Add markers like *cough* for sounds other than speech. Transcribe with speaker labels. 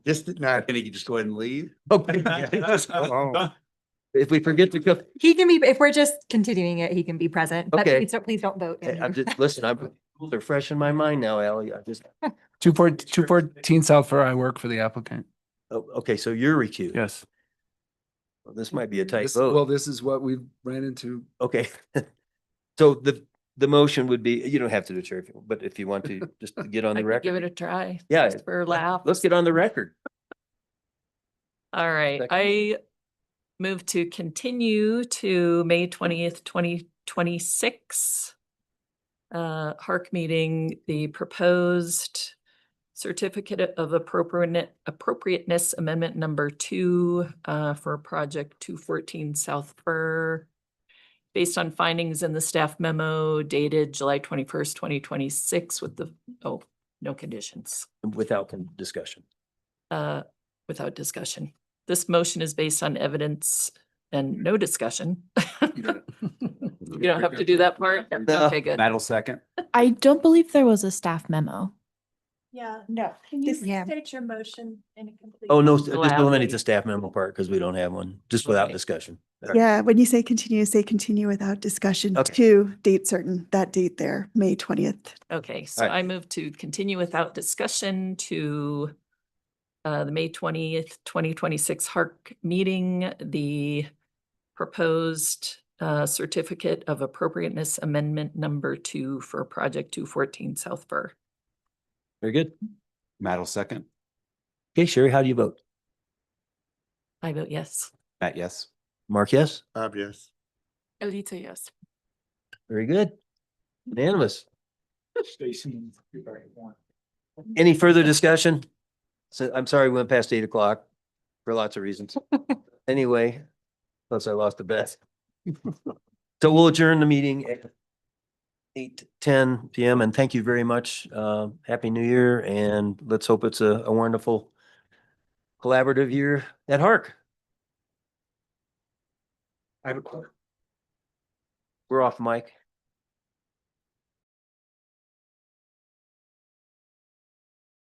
Speaker 1: This did not.
Speaker 2: Can he just go ahead and leave?
Speaker 1: *laughs*
Speaker 2: *laughs*
Speaker 1: Oh, If we forget to go,
Speaker 3: He can be, if we're just continuing it, he can be present, but
Speaker 1: Okay.
Speaker 3: please don't, please don't vote.
Speaker 1: I-
Speaker 3: in
Speaker 1: eh, I'm
Speaker 3: here.
Speaker 1: just, listen, I'm, they're fresh in my mind now, Ally. I just,
Speaker 4: Two four, two fourteen South Fur, I work for the applicant.
Speaker 1: oh, okay, so you're recused.
Speaker 4: Yes.
Speaker 1: Well, This might be a tight
Speaker 4: This- Well,
Speaker 1: vote.
Speaker 4: this is what we ran into.
Speaker 1: Okay. *laughs* So the, the motion would be, you don't have to do it, Sheriff, but if you want to, just to get on
Speaker 5: I
Speaker 1: the
Speaker 5: could give it
Speaker 1: record.
Speaker 5: a try.
Speaker 1: Yeah.
Speaker 5: just For a laugh.
Speaker 1: Let's get on the record.
Speaker 5: All right,
Speaker 1: Second.
Speaker 5: I move to continue to May twentieth, twenty twenty-six. Uh, Hark meeting, the proposed certificate of appropriate appropriateness amendment number two uh, for project two fourteen South Fur. Based on findings in the staff memo dated July twenty-first, twenty twenty-six with the, oh, no conditions
Speaker 1: Without con- discussion.
Speaker 5: uh, without discussion. This motion is based on evidence and no discussion. *laughs*
Speaker 4: *laughs*
Speaker 5: You don't have to do that part?
Speaker 1: No.
Speaker 5: Okay, good.
Speaker 4: That'll second.
Speaker 6: I don't believe there was a staff memo.
Speaker 7: Yeah, no. Can you
Speaker 3: This- Yeah.
Speaker 7: state your motion in a complete?
Speaker 1: Oh, no, s- just eliminate
Speaker 5: Allowed.
Speaker 1: the staff memo part because we don't have one, just without
Speaker 5: Okay.
Speaker 1: discussion.
Speaker 8: Yeah, when you say continue, say continue without discussion
Speaker 1: Okay.
Speaker 8: to date certain, that date there, May twentieth.
Speaker 5: Okay, so
Speaker 1: right.
Speaker 5: I move to continue without discussion to uh, the May twentieth, twenty twenty-six Hark meeting, the proposed uh, certificate of appropriateness amendment number two for project two fourteen South Burr.
Speaker 1: Very good.
Speaker 9: Matt will second.
Speaker 1: Okay, Sherry, how do you vote?
Speaker 5: I vote yes.
Speaker 9: Matt, yes.
Speaker 1: Mark, yes?
Speaker 2: Bob, yes.
Speaker 5: Alita, yes.
Speaker 1: Very good. Unanimous. Any further discussion? So I'm sorry, we went past eight o'clock for lots of reasons. Anyway, plus I lost the bet. So we'll adjourn the meeting at eight ten PM and thank you very much. Uh, happy new year and let's hope it's a, a wonderful collaborative year at Hark.
Speaker 4: I have a question.
Speaker 1: We're off mic.